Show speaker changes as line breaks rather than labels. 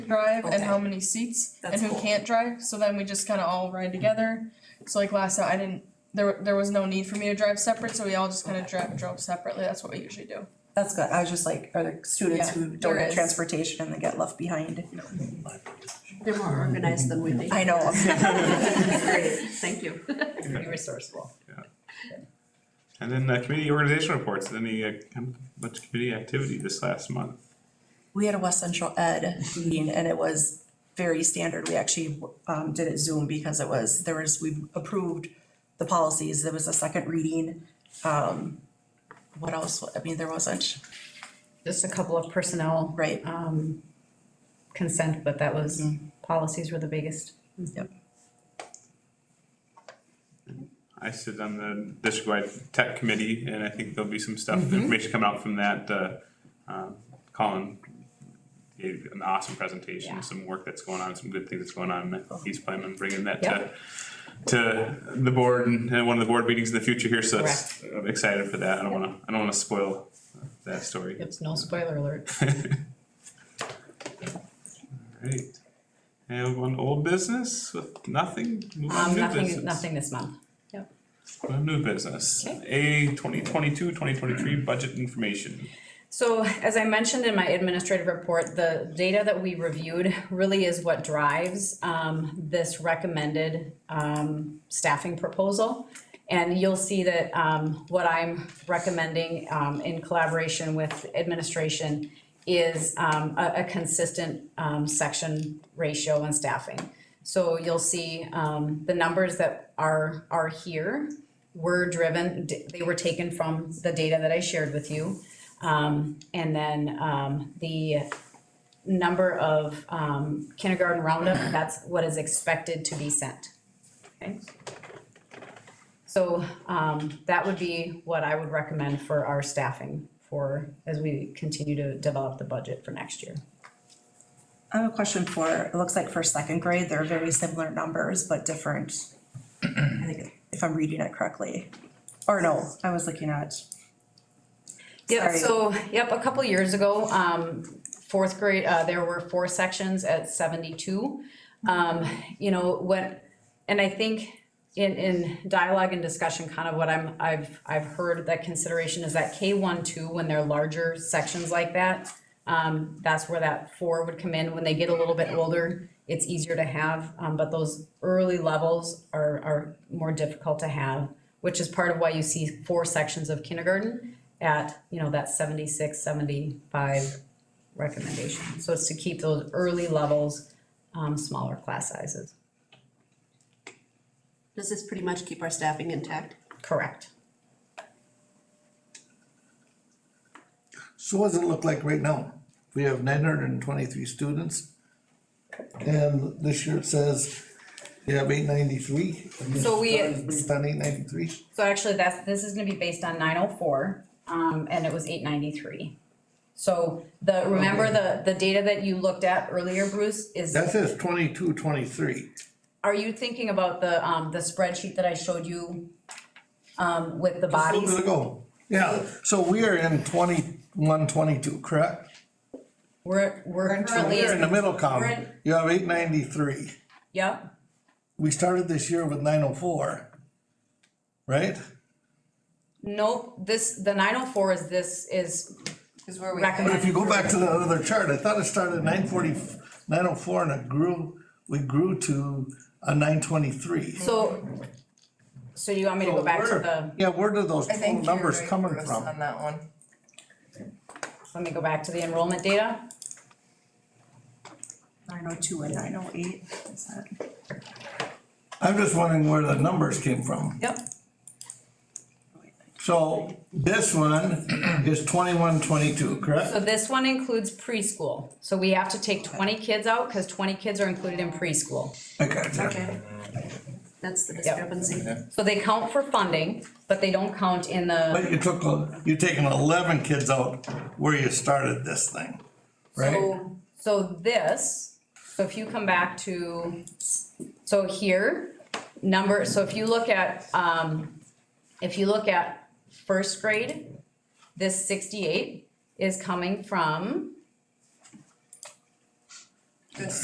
drive and how
Okay.
many seats
That's
and who
cool.
can't drive. So then we just kind of all ride together. So like last time, I didn't. There, there was no need for me to drive separate, so we all just kind of drive drove separately. That's what we usually do.
That's good, I was just like, are there students
Yeah,
who
there
don't get
is.
transportation and they get left behind?
They're more organized than we think.
I know,
Great, thank you. Pretty resourceful.
And then uh, community organization reports, any, uh, com- much community activity this last month?
we had a West Central Ed meeting and it was very standard. We actually um did it Zoom because it was, there was, we approved the policies, there was a second reading. Um what else, I mean, there wasn't,
Just a couple of personnel
right,
Uh,
um consent, but that was, policies were the biggest.
yep.
I sit on the district-wide tech committee, and I think there'll be some stuff, information come out from that, uh, um, Colin gave an awesome
Yeah.
presentation, some work that's going on, some good things that's going on, he's planning on bringing that
Yeah.
to, to the board and, and one of the board meetings in the future here, so it's- I'm excited for that, I don't wanna, I don't wanna spoil that story.
It's no spoiler alert.
Alright, and one old business with nothing, move on
Um,
to new business.
nothing, nothing this month.
Well, New business, A 2022-2023 budget information.
So as I mentioned in my administrative report, the data that we reviewed really is what drives um, this recommended um, staffing proposal. And you'll see that um, what I'm recommending um, in collaboration with administration is um, a, a consistent um, section ratio and staffing. So you'll see um, the numbers that are, are here were driven, they were taken from the data that I shared with you. Um, and then, um, the number of, um, kindergarten roundup, that's what is expected to be sent. Okay? So, um, that would be what I would recommend for our staffing for, as we continue to develop the budget for next year.
I have a question for, it looks like for second grade, they're very similar numbers, but different. I think if I'm reading it correctly, or no, I was looking at,
Yep,
Sorry.
so, yep, a couple years ago, um, fourth grade, uh, there were four sections at seventy-two. Um, you know, when, and I think in, in dialogue and discussion, kind of what I'm, I've, I've heard that consideration is that K one, two, when they're larger sections like that, um, that's where that four would come in. When they get a little bit older, it's easier to have, um, but those early levels are, are more difficult to have, which is part of why you see four sections of kindergarten at, you know, that 76, 75 recommendation. So it's to keep those early levels, um, smaller class sizes.
Does this pretty much keep our staffing intact?
Correct.
So what does it look like right now? We have nine hundred and twenty-three students. And this year it says you have eight ninety-three.
So we-
Based on eight ninety-three,
So actually, that's, this is gonna be based on nine oh four, um, and it was eight ninety-three. So the, remember the, the data that you looked at earlier, Bruce, is,
that says twenty-two, twenty-three.
are you thinking about the, um, the spreadsheet that I showed you? Um, with the
Just a little
bodies?
bit ago. Yeah, so we are in twenty-one, twenty-two, correct?
We're, we're
So
currently,
we're in the middle
we're
column.
in-
You have eight ninety-three.
yep,
We started this year with nine oh four. Right?
nope, this, the nine oh four is this, is
Is where we.
But
recommended.
if you go back to the other chart, I thought it started at nine forty, nine oh four and it grew, we grew to a nine twenty-three.
So, so you want me to go back to the,
Yeah, where did those
I
total
think
numbers coming from?
on that one.
let me go back to the enrollment data?
nine oh two and nine oh eight, is that?
I'm just wondering where the numbers came from.
Yep.
So this one is twenty-one, twenty-two,
So
correct?
this one includes preschool, so we have to take twenty kids out, cause twenty kids are included in preschool.
Okay, yeah.
Okay. That's the discrepancy.
So they count for funding, but they don't count in the,
But you took, a- you're taking eleven kids out where you started this thing, right?
so, so this, so if you come back to, so here, number, so if you look at, um, if you look at first grade, this sixty-eight is coming from
Good.